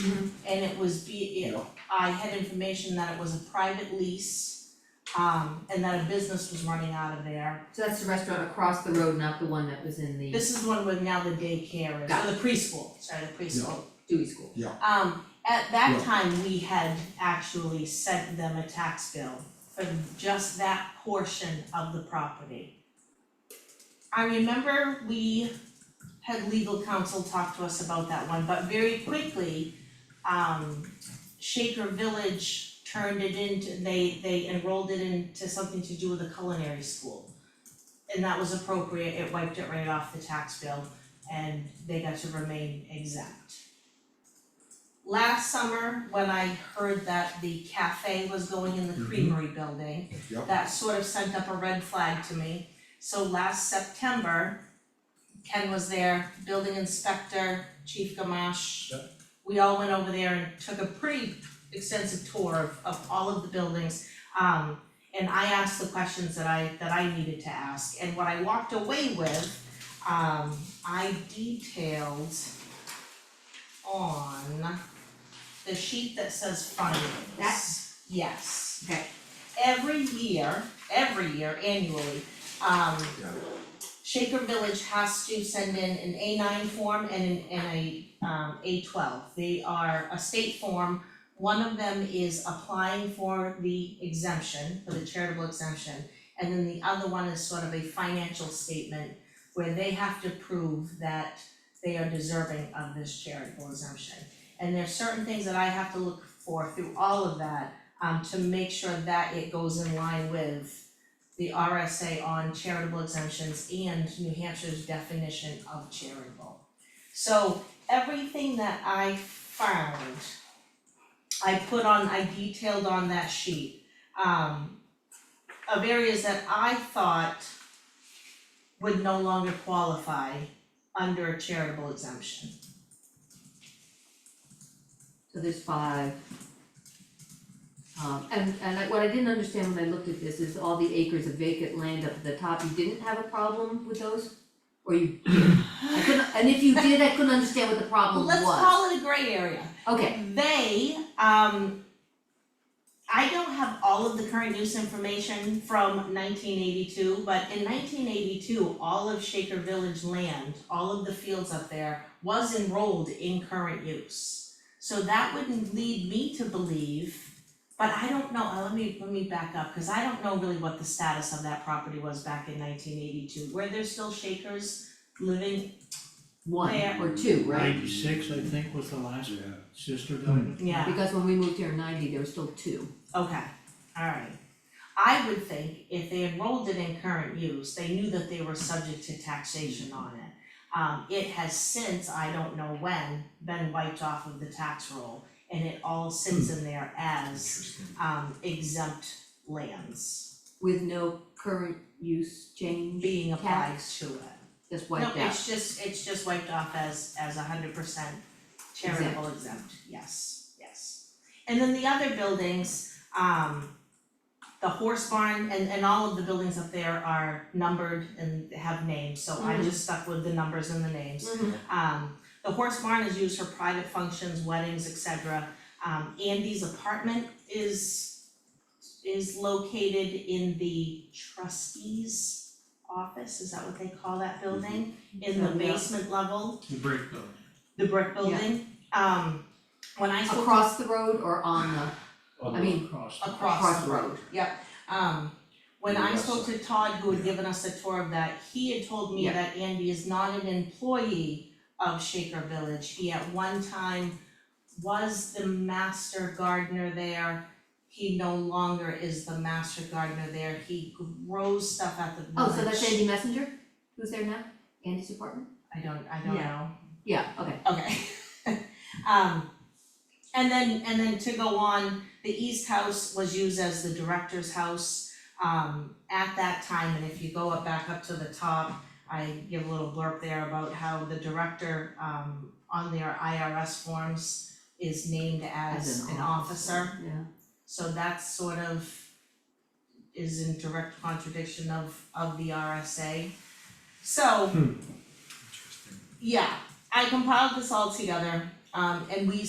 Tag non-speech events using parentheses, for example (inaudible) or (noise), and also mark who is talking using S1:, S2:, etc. S1: and it was be, it, I had information that it was a private lease. Um, and that a business was running out of there,
S2: So that's the restaurant across the road, not the one that was in the
S1: this is one where now the daycare is,
S2: Got
S1: or the preschool, sorry, the preschool.
S2: Dewey School.
S1: Um, at that
S3: Yeah.
S1: time, we had actually sent them a tax bill for just that portion of the property. I remember we had legal counsel talk to us about that one, but very quickly, um, Shaker Village turned it into, they, they enrolled it into something to do with a culinary school. And that was appropriate, it wiped it right off the tax bill, and they got to remain exempt last summer, when I heard that the cafe was going in the
S3: Mhm.
S1: creamery building,
S3: Yep.
S1: that sort of sent up a red flag to me. So last September, Ken was there, building inspector, Chief Gamache. We all went over there and took a pretty extensive tour of of all of the buildings. Um, and I asked the questions that I that I needed to ask, and what I walked away with, um, I detailed on the sheet that says findings.
S2: That's-
S1: Yes.
S2: Okay.
S1: Every year, every year annually, um,
S3: Yeah.
S1: Shaker Village has to send in an A nine form and an, and a, um, A twelve. They are a state form. One of them is applying for the exemption, for the charitable exemption. And then the other one is sort of a financial statement where they have to prove that they are deserving of this charitable exemption. And there's certain things that I have to look for through all of that, um, to make sure that it goes in line with the RSA on charitable exemptions and New Hampshire's definition of charitable. So everything that I found, I put on, I detailed on that sheet, um, of areas that I thought would no longer qualify under a charitable exemption.
S2: So there's five. Um, and, and I- what I didn't understand when I looked at this is all the acres of vacant land up at the top, you didn't have a problem with those? Or you, I couldn't, and if you did, I couldn't understand what the problem was.
S1: Let's call it a gray area.
S2: Okay,
S1: They, um, I don't have all of the current use information from nineteen eighty-two, but in nineteen eighty-two, all of Shaker Village land, all of the fields up there was enrolled in current use. So that would lead me to believe, but I don't know, uh, let me, let me back up, cause I don't know really what the status of that property was back in nineteen eighty-two. Were there still Shakers living?
S2: one
S1: There.
S2: or two, right?
S4: Ninety-six, I think, was the last
S3: Yeah.
S4: sister died.
S1: Yeah.
S2: Because when we moved here in ninety, there were still two.
S1: Okay, alright. I would think if they enrolled it in current use, they knew that they were subject to taxation on it. Um, it has since, I don't know when, been wiped off of the tax roll and it all sits in there as
S3: Interesting.
S1: um exempt lands
S2: With no current use change,
S1: being applied
S2: Tax.
S1: to it.
S2: just wiped
S1: No,
S2: out.
S1: it's just, it's just wiped off as, as a hundred percent charitable exempt, yes, yes. And then the other buildings, um, the horse barn and, and all of the buildings up there are numbered and have names, so I
S2: Mhm.
S1: just stuck with the numbers and the names.
S2: Mhm.
S1: Um, the horse barn is used for private functions, weddings, etc. Um, Andy's apartment is, is located in the trustee's office, is that what they call that building? In the
S2: Mhm. Yeah.
S1: basement level,
S4: The brick building.
S1: the brick building, um, when I spoke.
S2: Across the road or on the? I mean,
S4: Across.
S1: across the
S2: Across the
S1: road, yep. Um, when I
S3: Yes.
S1: spoke to Todd, who had
S3: Yeah.
S1: given us a tour of that, he had told me
S2: Yeah.
S1: that Andy is not an employee of Shaker Village. He at one time was the master gardener there. He no longer is the master gardener there. He grows stuff at the village.
S2: Oh, so that's Andy Messenger, who's there now, Andy's apartment?
S1: I don't, I don't know.
S2: Yeah. Yeah, okay,
S1: Okay. (laughs) Um, and then, and then to go on, the East House was used as the director's house, um, at that time, and if you go up back up to the top, I give a little blurb there about how the director, um, on their IRS forms is named as an officer,
S2: yeah.
S1: so that's sort of is in direct contradiction of, of the RSA. So,
S3: Interesting.
S1: yeah, I compiled this all together, um, and we